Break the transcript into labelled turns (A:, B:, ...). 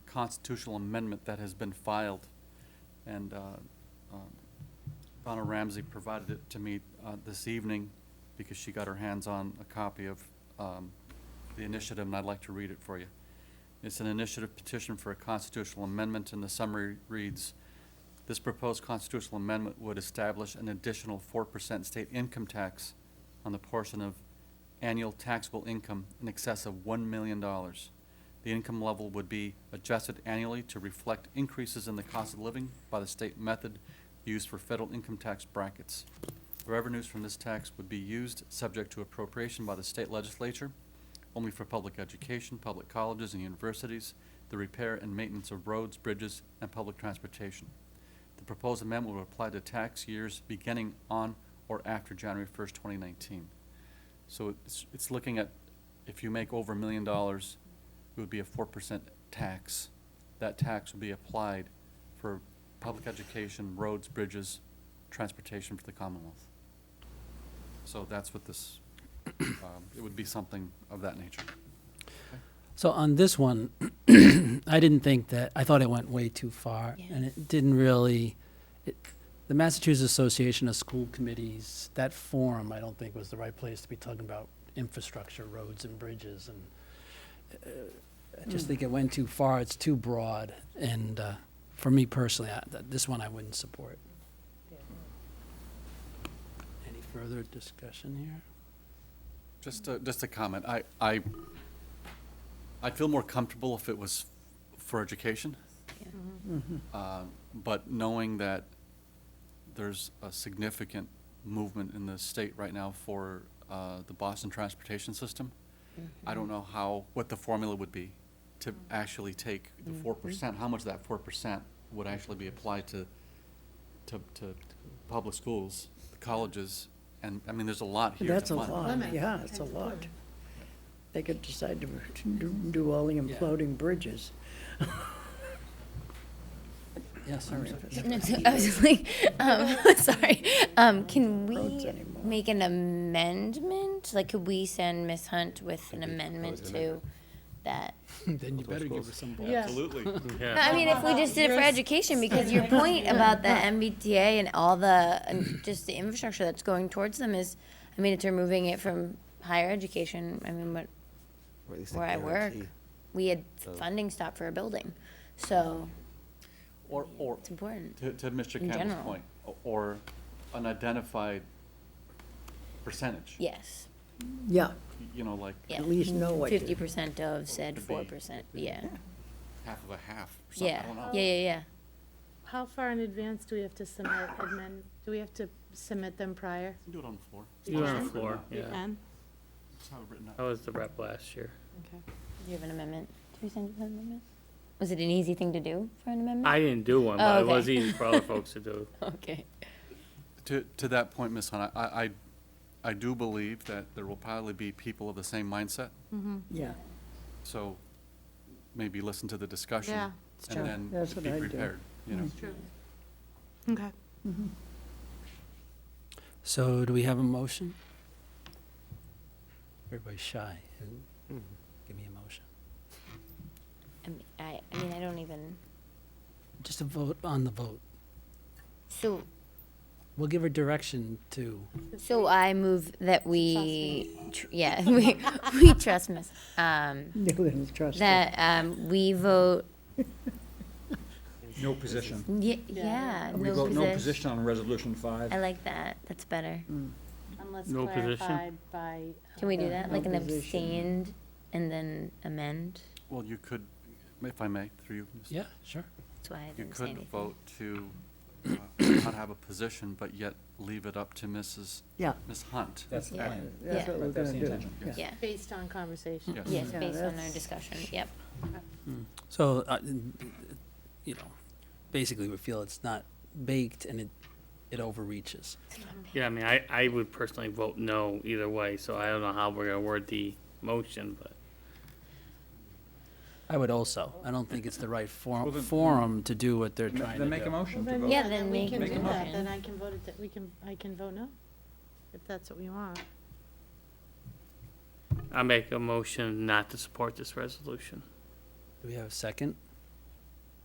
A: constitutional amendment that has been filed. And uh, um, Donna Ramsey provided it to me uh, this evening because she got her hands on a copy of um, the initiative, and I'd like to read it for you. It's an initiative petition for a constitutional amendment, and the summary reads, "This proposed constitutional amendment would establish an additional 4% state income tax on the portion of annual taxable income in excess of $1 million. The income level would be adjusted annually to reflect increases in the cost of living by the state method used for federal income tax brackets. The Revenues from this tax would be used subject to appropriation by the state legislature only for public education, public colleges and universities, the repair and maintenance of roads, bridges, and public transportation. The proposed amendment will apply to tax years beginning on or after January 1st, 2019. So it's, it's looking at, if you make over a million dollars, it would be a 4% tax. That tax would be applied for public education, roads, bridges, transportation for the Commonwealth. So that's what this, um, it would be something of that nature.
B: So on this one, I didn't think that, I thought it went way too far,
C: Yeah.
B: and it didn't really, it, the Massachusetts Association of School Committees, that forum, I don't think was the right place to be talking about infrastructure, roads and bridges, and uh, I just think it went too far, it's too broad, and, uh, for me personally, I, th- this one I wouldn't support. Any further discussion here?
A: Just a, just a comment. I, I, I'd feel more comfortable if it was for education,
D: Mm-hmm.
A: uh, but knowing that there's a significant movement in the state right now for uh, the Boston transportation system, I don't know how, what the formula would be to actually take the four percent, how much of that four percent would actually be applied to, to, to public schools, colleges, and, I mean, there's a lot here. to
D: That's a
A: fund.
D: lot,
C: Lemon.
D: yeah, it's a lot. They could decide to do- do all the imploding bridges.
B: Yes,
D: Or
B: Susan?
D: if it's-
C: No, so I was just like, um, sorry. Um, can
D: roads
C: we
D: anymore.
C: make an amendment? Like, could we send Ms. Hunt with an amendment to that?
B: Then you better give us some balls.
C: I mean, if we just did it for education, because your point about the MBTA and all the, and just the infrastructure that's going towards them is, I mean, it's removing it from higher education. I mean, but
E: Or at least a
C: where I work,
E: guarantee.
C: we had
E: So-
C: funding stop for a building, so
A: Or, or,
C: it's important.
A: to, to Mr.
C: In
A: Campbell's
C: general.
A: point, o- or an identified percentage.
C: Yes,
D: Yeah,
A: You know, like
C: yeah.
D: at least know what,
C: Fifty
D: to-
C: percent of said
A: Could be.
C: four percent, yeah.
A: half of a half, or something, I
C: Yeah,
A: don't know.
C: yeah, yeah, yeah.
F: How far in advance do we have to submit amend, do we have to submit them
A: You
F: prior?
A: can Do it on the floor.
F: You
G: You're on
F: can?
G: the floor, Oh.
F: We
G: yeah.
F: can?
A: Just have it written
G: I
A: up.
G: was the rep last year.
F: Okay.
C: Do you have an amendment? Did we send you an amendment? Was it an easy thing to do for an amendment?
G: I didn't do one,
C: Oh,
G: but it
C: okay.
G: was easy for other folks to do.
C: Okay.
A: To, to that point, Ms. Hunt, I, I, I do believe that there will probably be people of the same mindset,
D: yeah,
A: so maybe listen to the discussion.
F: Yeah, it's true.
A: And
D: That's
A: then
D: what
A: be
D: I do.
A: prepared, you know.
F: Okay.
B: So do we have a motion? Everybody's shy. Give me a motion.
C: I mean, I, I mean, I don't even,
B: Just a vote on the vote.
C: so,
B: We'll give her direction to,
C: so I move that we, tr- yeah, we, we trust Miss, um,
D: you wouldn't trust it.
C: that, um, we vote,
H: No position.
C: yeah,
F: Yeah.
C: yeah,
H: We vote no
C: no position.
H: position on Resolution 5.
C: I like that, that's better.
D: Mm.
F: Unless
G: No position?
F: clarified by. uh,
C: Can we do
D: Yeah,
C: that,
D: no
C: like an
D: position.
C: abstained and then amend?
A: Well, you could, if I may, through you, Ms.
B: yeah, sure.
C: That's why I
A: You
C: didn't say
A: could
C: anything.
A: vote to uh, not have a position, but yet leave it up to Mrs.,
D: Yeah,
A: Ms. Hunt.
H: That's the
C: Yeah.
H: plan.
D: that's
C: Yeah.
D: what we're
H: That's the
D: gonna do,
H: intention,
D: yeah.
C: Yeah,
F: Based on conversation.
A: Yes.
C: yes,
D: Yeah,
C: based on our
D: that's-
C: discussion, yep.
B: So, uh, n- you know, basically we feel it's not baked and it, it overreaches.
G: Yeah, I mean, I, I would personally vote no either way, so I don't know how we're gonna word the motion, but
B: I would also, I don't think it's the right
H: Well,
B: forum,
H: then-
B: forum to do what they're
H: Ma-
B: trying to
H: Then make a
B: do.
H: motion to vote.
C: Yeah, then
F: we
C: make
F: can
C: a
F: do
C: motion.
F: that. Then I can vote it, that we can, I can vote no, if that's what we want.
G: I make a motion not to support this resolution.
B: Do we have a second?